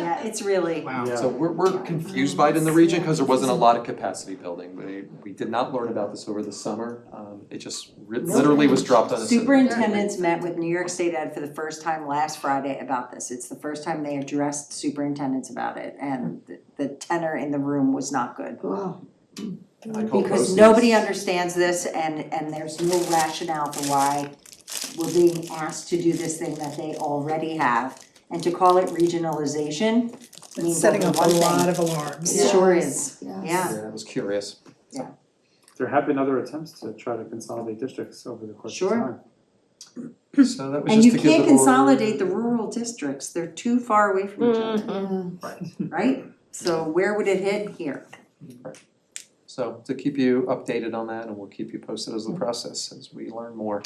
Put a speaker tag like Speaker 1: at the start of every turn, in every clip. Speaker 1: yeah, it's really,
Speaker 2: Wow.
Speaker 3: So we're, we're confused by it in the region because there wasn't a lot of capacity building. We, we did not learn about this over the summer. Um, It just ri- literally was dropped on us.
Speaker 1: superintendents met with New York State Ed for the first time last Friday about this. It's the first time they addressed superintendents about it, and the- the tenor in the room was not good.
Speaker 3: I call
Speaker 1: Because
Speaker 3: those-
Speaker 1: nobody understands this and, and there's no rationale for why we're being asked to do this thing that they already have. And to call it regionalization
Speaker 4: It's
Speaker 1: means
Speaker 4: setting
Speaker 1: only
Speaker 4: up a
Speaker 1: one
Speaker 4: lot
Speaker 1: thing.
Speaker 4: of alarms.
Speaker 1: It sure is,
Speaker 5: Yes.
Speaker 1: yeah.
Speaker 3: Yeah, I was curious.
Speaker 2: There have been other attempts to try to consolidate districts over the course of
Speaker 1: Sure.
Speaker 2: time.
Speaker 3: So that was
Speaker 1: And
Speaker 3: just
Speaker 1: you
Speaker 3: to give the board.
Speaker 1: can't consolidate the rural districts, they're too far away from each other, right? So where would it hit here?
Speaker 3: So to keep you updated on that and we'll keep you posted
Speaker 1: Mm-hmm.
Speaker 3: as the process as we learn more.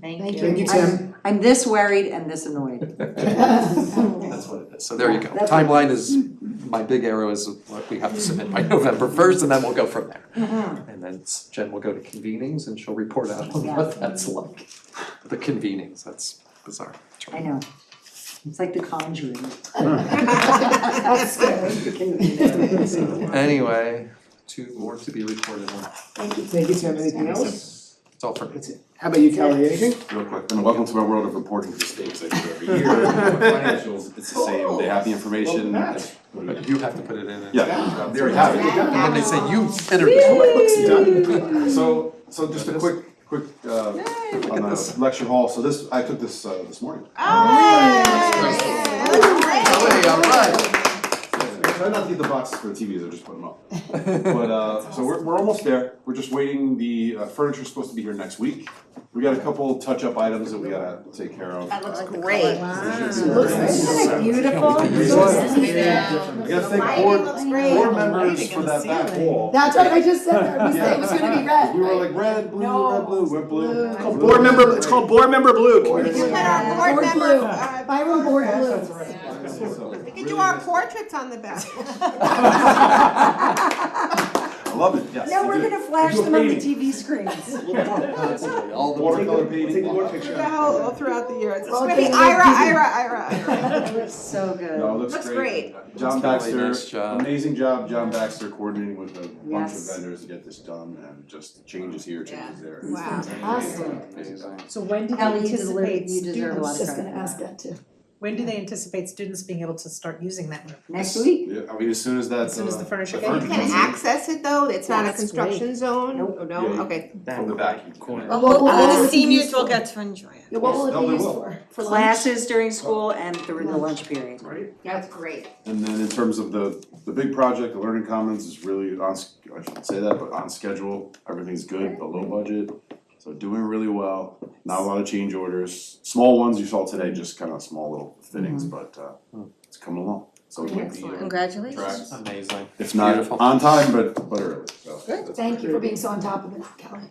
Speaker 5: Thank you.
Speaker 4: Thank you, Tim.
Speaker 1: I'm this worried and this annoyed.
Speaker 3: That's what it is. So there you go.
Speaker 1: That's what-
Speaker 3: Timeline is, my big arrow is what we have to submit by November first and then we'll go from there. And then s- Jen will go to convenings and she'll report out on
Speaker 1: Yeah.
Speaker 3: what that's like. The convenings, that's bizarre.
Speaker 1: I know. It's like the conjuring.
Speaker 5: That's scary.
Speaker 3: Anyway, two more to be reported on.
Speaker 4: Thank you, Tim. Anything else?
Speaker 3: It's all for me.
Speaker 4: That's it. How about you, Kelly? Anything?
Speaker 6: Real quick, and welcome to my world of reporting for states I do every year. Financials, it's the same, they have the information.
Speaker 3: But you have to put it in. and-
Speaker 6: Yeah, there we have it.
Speaker 3: And then they say you entered it.
Speaker 6: So, so just a quick, quick, uh,
Speaker 3: look
Speaker 6: on
Speaker 3: at
Speaker 6: the
Speaker 3: this.
Speaker 6: lecture hall, so this, I took this, uh, this morning.
Speaker 3: Hey, all right.
Speaker 6: I Try not to get the boxes for the TVs, I just put them up. But, uh, so we're, we're almost there, we're just waiting, the uh, furniture's supposed to be here next week. We got a couple touch-up items that we gotta take care of.
Speaker 5: That looks great.
Speaker 1: Isn't it beautiful?
Speaker 6: I gotta thank board, board members for that back wall.
Speaker 5: That's what I just said, that. We said it was gonna be red.
Speaker 6: We were like red, blue, red, blue, we're blue.
Speaker 5: It's called
Speaker 4: Board member, it's called board member blue.
Speaker 7: We could put our board
Speaker 5: Board
Speaker 7: member,
Speaker 5: blue.
Speaker 7: uh,
Speaker 5: Byron board blue.
Speaker 7: we could do our portraits on the back.
Speaker 6: I love it, yes.
Speaker 1: Now we're
Speaker 6: we do.
Speaker 1: gonna flash them on the TV screens.
Speaker 3: All the
Speaker 6: Watercolor painting.
Speaker 7: Do the whole, all throughout the year, it's
Speaker 5: Well,
Speaker 7: gonna be
Speaker 5: they-
Speaker 7: Ira, Ira, Ira, Ira.
Speaker 1: It looks so good.
Speaker 6: No, it looks
Speaker 7: Looks
Speaker 6: great.
Speaker 3: That's really
Speaker 6: John Baxter,
Speaker 3: nice
Speaker 4: uh,
Speaker 3: job.
Speaker 6: amazing job, John Baxter coordinating with a bunch of
Speaker 1: Yes.
Speaker 6: vendors to get this done and just changes here, changes there.
Speaker 7: Wow.
Speaker 5: Awesome.
Speaker 6: Amazing.
Speaker 8: So when do they
Speaker 1: Kelly, you deserve,
Speaker 8: anticipate
Speaker 1: you deserve a
Speaker 8: students,
Speaker 1: lot of
Speaker 5: Just gonna
Speaker 1: credit.
Speaker 5: ask that too.
Speaker 8: when do they anticipate students being able to start using that room?
Speaker 1: Next week,
Speaker 6: Yeah, I mean, as soon as that's.
Speaker 8: As soon as the
Speaker 6: uh,
Speaker 8: furniture
Speaker 6: the
Speaker 8: gets-
Speaker 7: You
Speaker 6: furniture
Speaker 7: can
Speaker 6: comes in
Speaker 7: access it though, it's not a
Speaker 8: That's great.
Speaker 7: construction zone,
Speaker 1: Nope.
Speaker 7: oh no,
Speaker 6: Yeah, you-
Speaker 7: okay.
Speaker 6: From the back. you can-
Speaker 5: Well, what will
Speaker 7: all
Speaker 5: it
Speaker 7: the
Speaker 5: be used for?
Speaker 7: to enjoy it.
Speaker 5: Yeah, What will
Speaker 6: No,
Speaker 5: it
Speaker 6: they
Speaker 5: be used
Speaker 6: will.
Speaker 5: for? For lunch?
Speaker 1: classes during school and during the lunch period.
Speaker 6: Right,
Speaker 7: That's great.
Speaker 6: and then in terms of the, the big project, the learning commons is really on, s- I shouldn't say that, but on schedule, everything's good, a low budget. So doing really well, not a lot of change orders, small ones you saw today, just kind of small little fittings, but, uh, it's coming along. So we might be uh,
Speaker 5: Congratulations.
Speaker 6: tracks.
Speaker 3: Amazing.
Speaker 6: If not
Speaker 3: Beautiful.
Speaker 6: on time, but but early, so.
Speaker 5: Thank you for being so on top of it, Kelly.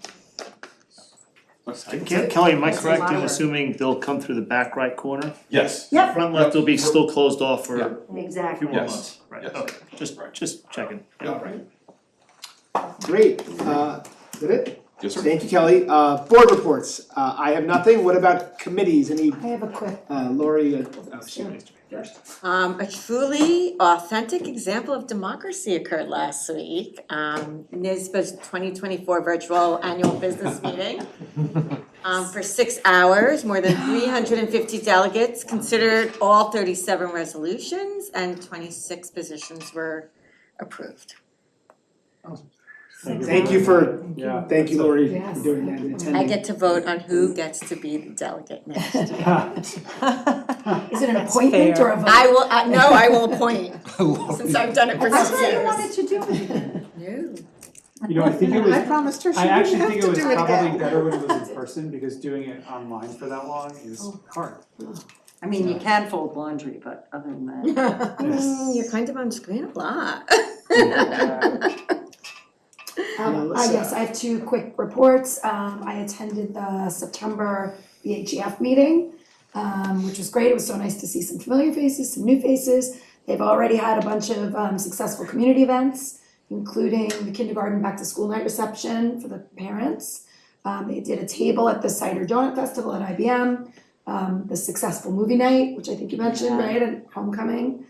Speaker 9: Ke- Kelly, am I
Speaker 1: That's
Speaker 9: correct in
Speaker 1: smaller.
Speaker 9: assuming they'll come through the back right corner?
Speaker 6: Yes.
Speaker 1: Yep.
Speaker 9: Front left will be still closed off for a few
Speaker 1: Exactly.
Speaker 9: more
Speaker 6: Yes.
Speaker 9: months, right,
Speaker 6: Yes.
Speaker 9: okay, just, just checking.
Speaker 6: Yeah, right.
Speaker 4: Great. Uh, is that it?
Speaker 6: Yes, sir.
Speaker 4: Thank you, Kelly. Uh, board reports. Uh, I have nothing. What about committees? Any,
Speaker 5: I have a quick,
Speaker 4: uh, Lori, uh, oh, she raised her hand first.
Speaker 10: Um, a truly authentic example of democracy occurred last week. Um, NISBA's twenty twenty-four virtual annual business meeting. um, for six hours, more than three hundred and fifty delegates considered all thirty-seven resolutions and twenty-six positions were approved.
Speaker 4: Thank you for,
Speaker 2: Yeah.
Speaker 4: thank you, Lori, for
Speaker 5: Yes.
Speaker 4: doing that and attending.
Speaker 10: I get to vote on who gets to be the delegate next.
Speaker 5: is it an appointment or a vote?
Speaker 10: I will, uh, no, I will appoint, since I've done it for
Speaker 1: That's
Speaker 10: six
Speaker 1: what I
Speaker 10: years.
Speaker 1: wanted to do with it.
Speaker 10: No.
Speaker 2: You know, I think it was,
Speaker 7: I promised her she
Speaker 2: I actually
Speaker 7: wouldn't have
Speaker 2: think it
Speaker 7: to
Speaker 2: was
Speaker 7: do it
Speaker 2: probably
Speaker 7: again.
Speaker 2: better when it was in person, because doing it online for that long is hard.
Speaker 1: I mean, you can fold laundry, but other than that,
Speaker 10: Mm, You're kind of on screen a lot.
Speaker 1: uh,
Speaker 5: Um, uh, yes, I have two quick reports. Um, I attended the September BHGF meeting, um, which was great. It was so nice to see some familiar faces, some new faces. They've already had a bunch of, um, successful community events, including the kindergarten back to school night reception for the parents. Um, they did a table at the Cider Donut Festival at IBM, um, the successful movie night, which I think you mentioned, right, and homecoming.